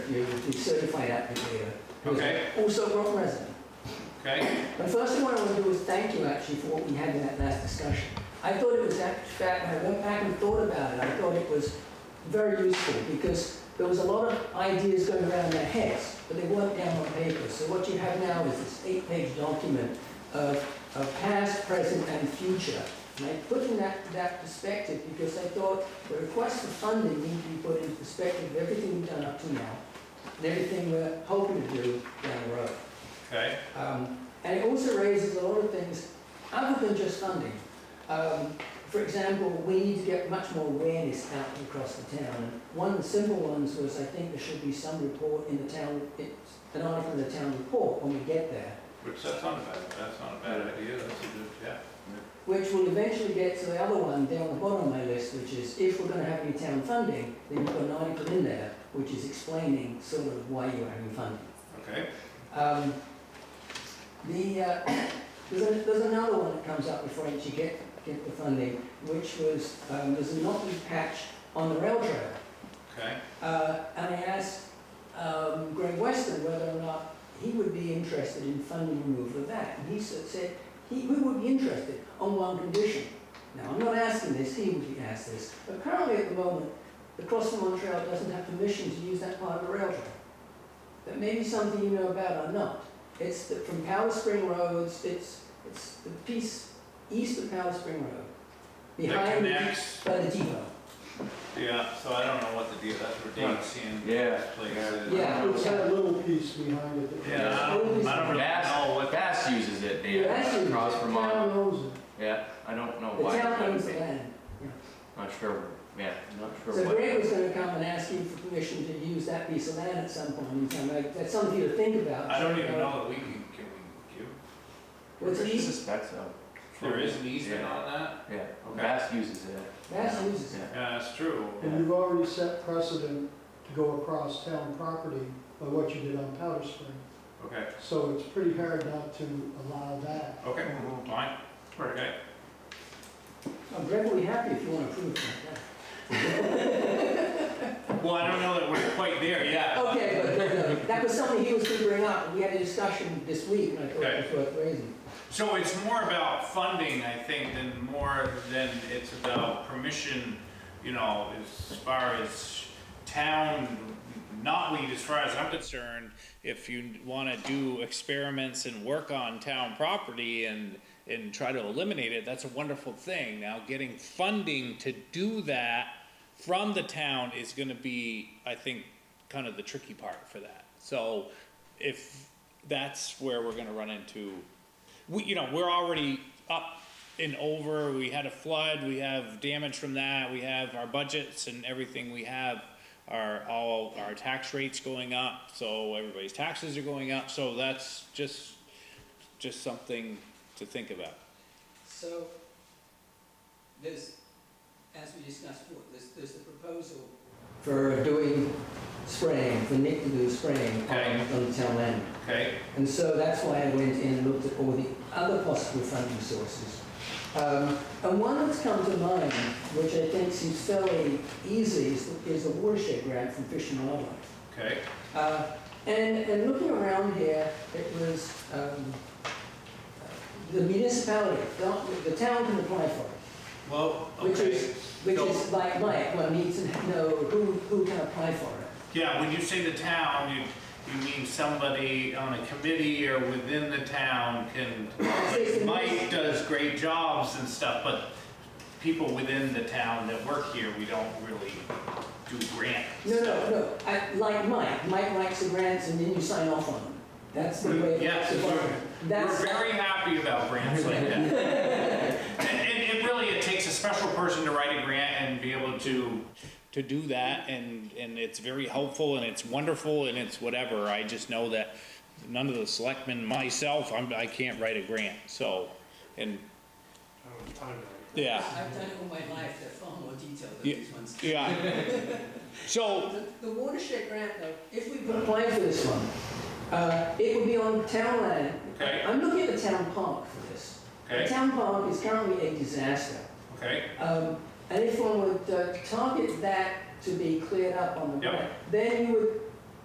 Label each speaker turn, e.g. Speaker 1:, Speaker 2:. Speaker 1: interview with the certified applicant here. who's
Speaker 2: Okay.
Speaker 1: Also Rock resident.
Speaker 2: Okay,
Speaker 1: But first thing I want to do is thank you actually for what we had in that last discussion. I thought it was, in fact, when I went back and thought about it, I thought it was very useful because there was a lot of ideas going around in their heads, but they weren't down on paper. So what you have now is this eight-page document of, of past, present, and future. And I put in that, that perspective because I thought the request for funding need to be put into perspective of everything we've done up to now and everything we're hoping to do down the road.
Speaker 2: okay,
Speaker 1: Um, And it also raises a lot of things other than just funding. Um, For example, we need to get much more awareness out across the town. And One of the simple ones was, I think there should be some report in the town, it's an article in the town report when we get there,
Speaker 2: which that's not a bad, that's not a bad idea, that's a good, yeah.
Speaker 1: which will eventually get to the other one down the bottom of my list, which is if we're going to have any town funding, then you've got an article in there which is explaining sort of why you're having funding.
Speaker 2: Okay,
Speaker 1: Um, The, uh, there's a- there's another one that comes up before you actually get, get the funding, which was, um, there's a knotty patch on the rail trail.
Speaker 2: okay,
Speaker 1: Uh, And I asked um, Greg Weston whether or not he would be interested in funding removal of that. And he sa- said, he, we would be interested on one condition. Now, I'm not asking this, he would be asked this, but currently at the moment, the Crossing Montreal doesn't have permission to use that part of the rail trail. That may be something you know about or not. It's the- from Powell Spring Roads, it's, it's the piece east of Powell Spring Road.
Speaker 2: that
Speaker 1: Behind, the-
Speaker 2: connects,
Speaker 1: by the depot.
Speaker 2: yeah, so I don't know what the deal, that's where Dave Sand
Speaker 3: Yeah.
Speaker 2: place is.
Speaker 1: Yeah.
Speaker 4: It's got a little piece behind it.
Speaker 2: Yeah, I don't, I don't really know what.
Speaker 3: Bass uses it, David,
Speaker 1: Yeah, Bass uses
Speaker 3: across
Speaker 1: it.
Speaker 3: Vermont.
Speaker 4: Town owns it.
Speaker 3: Yeah, I don't know
Speaker 1: The
Speaker 3: why.
Speaker 1: town
Speaker 3: that would
Speaker 1: owns the
Speaker 3: be.
Speaker 1: land.
Speaker 3: Not sure, yeah, not sure
Speaker 1: So
Speaker 3: what.
Speaker 1: Greg was gonna come and ask you for permission to use that piece of land at some point in time, like, that's something to think about.
Speaker 2: I don't even know that we can, can we give,
Speaker 1: What's
Speaker 3: I
Speaker 1: east,
Speaker 3: suspect so.
Speaker 2: there is an easement on that?
Speaker 3: Yeah,
Speaker 2: Okay.
Speaker 3: Bass uses it,
Speaker 1: Mass uses it.
Speaker 3: yeah.
Speaker 2: Yeah, that's true.
Speaker 4: And you've already set precedent to go across town property by what you did on Powder Spring.
Speaker 2: Okay,
Speaker 4: So it's pretty hard not to allow that.
Speaker 2: okay, fine, okay.
Speaker 1: Oh, Greg will be happy if you wanna prove that.
Speaker 2: Well, I don't know that we're quite there yet.
Speaker 1: Okay, but uh, that was something he was gonna bring up, and we had a discussion this week, and I thought it was worth raising.
Speaker 2: So it's more about funding, I think, than more than it's about permission, you know, as far as town knotweed, as far as I'm concerned, if you want to do experiments and work on town property and, and try to eliminate it, that's a wonderful thing. Now, getting funding to do that from the town is going to be, I think, kind of the tricky part for that. So if that's where we're going to run into we, you know, we're already up and over. We had a flood. We have damage from that. We have our budgets and everything we have are all our tax rates going up. So everybody's taxes are going up. So that's just just something to think about.
Speaker 5: So, there's, as we discussed before, there's, there's the proposal,
Speaker 1: For doing spraying, for Nick to do spraying on,
Speaker 2: Okay.
Speaker 1: on the town land.
Speaker 2: Okay.
Speaker 1: And so that's why I went in and looked at all the other possible funding sources. Um, And one that's come to mind, which I think seems fairly easy, is the- is the watershed grant from Fish and Wildlife.
Speaker 2: Okay.
Speaker 1: Uh, And, and looking around here, it was, um, the municipality, don't- the town can apply for it,
Speaker 2: Well.
Speaker 1: which is, which is like Mike, one needs to know who, who can apply for it.
Speaker 2: Yeah, when you say the town, you, you mean somebody on a committee or within the town can, like Mike does great jobs and stuff, but people within the town that work here, we don't really do grants.
Speaker 1: No, no, no, I- like Mike, Mike likes the grants and then you sign off on them. That's the way. it
Speaker 2: Yes,
Speaker 1: works.
Speaker 2: we're, we're
Speaker 1: That's-
Speaker 2: very happy about grants like that. And, and it really, it takes a special person to write a grant and be able to. To do that and, and it's very helpful and it's wonderful and it's whatever. I just know that none of the selectmen, myself, I'm, I can't write a grant, so, and. Yeah,
Speaker 5: I've done it all my life, they're far more detailed than
Speaker 2: Yeah.
Speaker 5: these ones.
Speaker 2: yeah. So,
Speaker 5: The the watershed grant, though, if we
Speaker 1: would
Speaker 5: put,
Speaker 1: apply for this one. Uh, It would be on town land.
Speaker 2: Okay.
Speaker 1: I'm looking at the town park for this. The
Speaker 2: okay,
Speaker 1: town park is currently a disaster.
Speaker 2: okay,
Speaker 1: Um, And if one would uh, target that to be cleared up on the
Speaker 2: Yep.
Speaker 1: map, then you would